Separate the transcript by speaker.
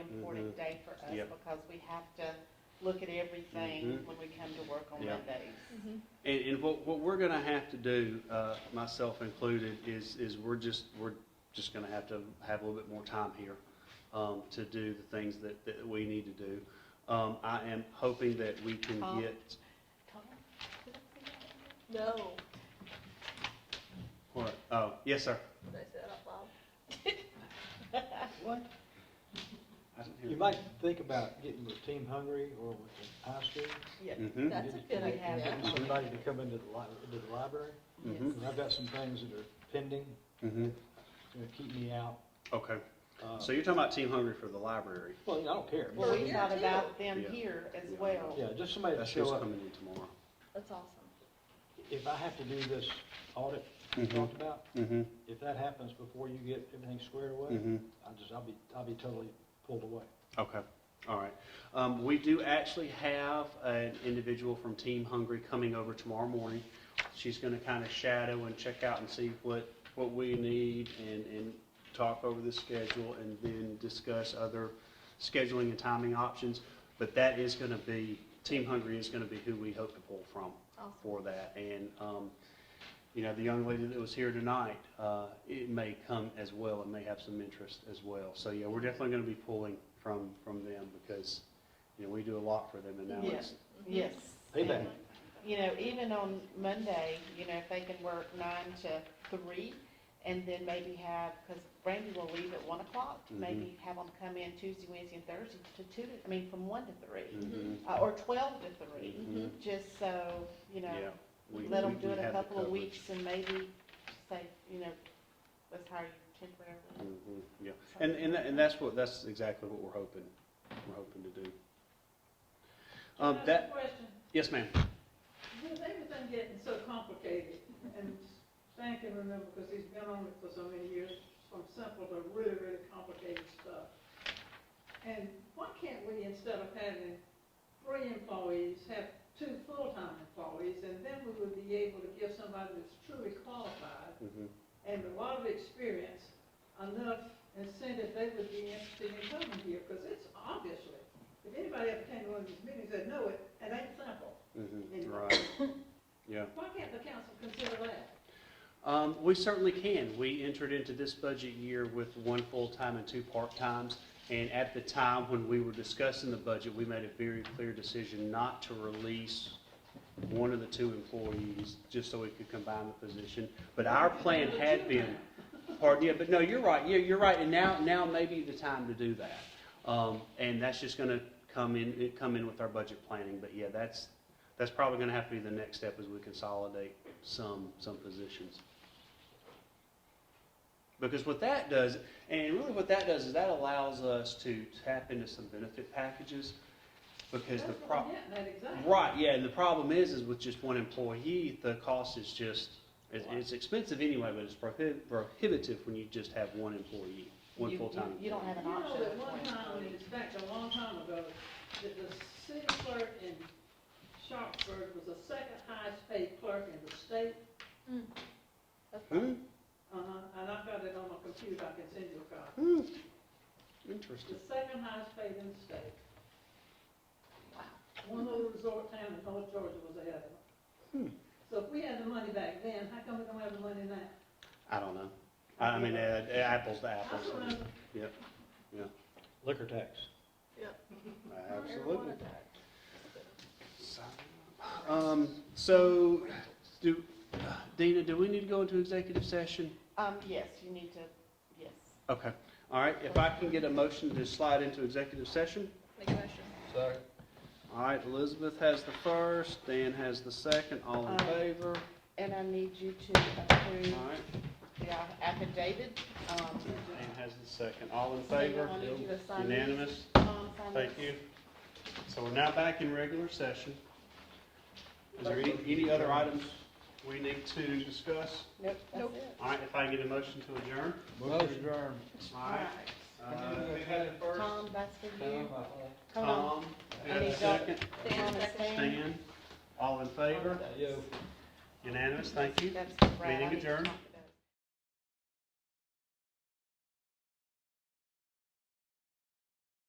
Speaker 1: important day for us
Speaker 2: Mm-hmm. Yep.
Speaker 1: because we have to look at everything
Speaker 2: Mhm.
Speaker 1: when we come to work on
Speaker 2: Yep.
Speaker 1: Mondays.
Speaker 2: And, and what, what we're gonna have to do, uh, myself included, is, is we're just, we're just gonna have to have a little bit more time here, um, to do the things that, that we need to do. Um, I am hoping that we can
Speaker 3: Uh-huh.
Speaker 1: Oh.
Speaker 2: get,
Speaker 1: Tom, did I say that?
Speaker 4: No.
Speaker 2: what, oh, yes, sir.
Speaker 4: Did I say that out loud?
Speaker 2: What?
Speaker 3: You might think about getting with Team Hungry or with the high school.
Speaker 1: Yes.
Speaker 2: Mm-hmm,
Speaker 4: That's a good
Speaker 3: Get-
Speaker 1: idea.
Speaker 3: Get somebody to come into the li- into the library,
Speaker 2: Mhm.
Speaker 3: because I've got some things that are pending,
Speaker 2: mm-hmm,
Speaker 3: it's gonna keep me out.
Speaker 2: okay.
Speaker 3: Uh,
Speaker 2: So you're talking about Team Hungry for the library?
Speaker 3: Well, I don't care.
Speaker 1: Well,
Speaker 4: For
Speaker 1: we
Speaker 4: here,
Speaker 1: thought
Speaker 4: too.
Speaker 1: about them
Speaker 2: Yeah.
Speaker 1: here as
Speaker 2: Yeah.
Speaker 1: well.
Speaker 3: Yeah, just somebody to
Speaker 2: That's who's
Speaker 3: show up.
Speaker 2: coming in tomorrow.
Speaker 4: That's awesome.
Speaker 3: If I have to do this audit we
Speaker 2: Mhm.
Speaker 3: talked about,
Speaker 2: Mm-hmm,
Speaker 3: if that happens before you get everything squared away,
Speaker 2: mm-hmm.
Speaker 3: I'll just, I'll be, I'll be totally pulled away.
Speaker 2: Okay, all right. Um, we do actually have an individual from Team Hungry coming over tomorrow morning. She's gonna kind of shadow and check out and see what, what we need and, and talk over the schedule and then discuss other scheduling and timing options. But that is gonna be, Team Hungry is gonna be who we hope to pull from
Speaker 4: Awesome.
Speaker 2: for that. And, um, you know, the young lady that was here tonight, uh, it may come as well and may have some interest as well. So, yeah, we're definitely gonna be pulling from, from them because, you know, we do a lot for them and now it's,
Speaker 1: Yes.
Speaker 3: Payback.
Speaker 1: You know, even on Monday, you know, if they can work nine to three, and then maybe have, because Brandy will leave at one o'clock,
Speaker 2: Mhm.
Speaker 1: maybe have them come in Tuesday, Wednesday, and Thursday to two, I mean, from one to three,
Speaker 2: Mhm.
Speaker 1: uh, or twelve to three,
Speaker 2: Mhm.
Speaker 1: just so, you
Speaker 2: yeah.
Speaker 1: know,
Speaker 2: we-
Speaker 1: Mm-hmm. let them
Speaker 2: we-
Speaker 1: do
Speaker 2: we
Speaker 1: it a
Speaker 2: have the
Speaker 1: couple of
Speaker 2: coverage.
Speaker 1: weeks and maybe say, you know, let's hire you temporarily.
Speaker 2: Mhm, Yeah, and, and, tha- and that's what, that's exactly what we're hoping, we're hoping to do. Um,
Speaker 5: That's
Speaker 2: that,
Speaker 5: a Question,
Speaker 2: yes, ma'am.
Speaker 5: with everything getting so complicated, and Stan can remember, because he's been on it for so many years, from simple to really, really complicated stuff. And why can't we, instead of having three employees, have two full-time employees, and then we would be able to give somebody that's truly qualified
Speaker 2: Mhm.
Speaker 5: and a lot of experience, enough incentive they would be interested in coming here, because it's obviously, if anybody ever came to one of these meetings, they'd know it, it ain't simple.
Speaker 2: Mhm.
Speaker 5: Anyway.
Speaker 2: Right, yeah.
Speaker 5: Why can't the council consider that?
Speaker 2: Um, we certainly can. We entered into this budget year with one full-time and two part-times. And at the time when we were discussing the budget, we made a very clear decision not to release one of the two employees, just so we could combine the position. But our plan had been, pardon, yeah, but no, you're right, yeah, you're right, and now, now may be the time to do that. Um, and that's just gonna come in, it come in with our budget planning, but yeah, that's, that's probably gonna have to be the next step as we consolidate some, some positions. Because what that does, and really what that does is that allows us to tap into some benefit packages, because the
Speaker 5: That's what
Speaker 2: pro-
Speaker 5: I'm getting at, exactly.
Speaker 2: Right, yeah, and the problem is, is with just one employee, the cost is just, it's, it's expensive anyway, but it's prohi- prohibitive when you just have one employee, one
Speaker 1: You-
Speaker 2: full-time.
Speaker 1: you- You don't have
Speaker 5: You
Speaker 1: an
Speaker 5: know
Speaker 1: option.
Speaker 5: that one time, and it's back a long time ago, that the city clerk in Sharpsburg was the second highest paid clerk in the state.
Speaker 2: Hmm,
Speaker 5: Uh-huh, and I've got it on my computer, I can send you a copy.
Speaker 2: hmm, interesting.
Speaker 5: The second highest paid in the state. One little resort town in North Georgia was ahead of
Speaker 2: Hmm.
Speaker 5: them. So if we had the money back then, how come we don't have the money now?
Speaker 2: I don't know. I, I mean, uh, apples to
Speaker 5: I
Speaker 2: apples.
Speaker 5: don't know.
Speaker 3: Liquor tax.
Speaker 2: Absolutely. Um, so, do, Dina, do we need to go into executive session?
Speaker 1: Um, yes, you need to, yes.
Speaker 2: Okay, all right, if I can get a motion to slide into executive session?
Speaker 4: Make a motion.
Speaker 3: Sorry.
Speaker 2: All right, Elizabeth has the first, Dan has the second, all in
Speaker 1: Aye.
Speaker 2: favor?
Speaker 1: And I need you to approve
Speaker 2: All right,
Speaker 1: the uh, affidavit. Um,
Speaker 2: Dan has the second, all in
Speaker 1: so you
Speaker 2: favor?
Speaker 1: wanted you to sign these.
Speaker 2: Unanimous,
Speaker 1: Tom, sign
Speaker 2: thank
Speaker 1: this.
Speaker 2: you. So we're now back in regular session. Is there any, any other items we need to discuss?
Speaker 1: Nope, that's
Speaker 4: Nope.
Speaker 1: it.
Speaker 2: All right, if I can get a motion to adjourn?
Speaker 3: Motion adjourned.
Speaker 2: All right. Uh, who had it first?
Speaker 1: Tom, that's for you. Tom,
Speaker 2: Tom, who had the second?
Speaker 1: Tom and Stan.
Speaker 2: Stan, all in favor?
Speaker 3: Yo.
Speaker 2: Unanimous, thank you.
Speaker 1: That's Brad. I
Speaker 2: Meeting
Speaker 1: need to
Speaker 2: adjourned.
Speaker 1: talk to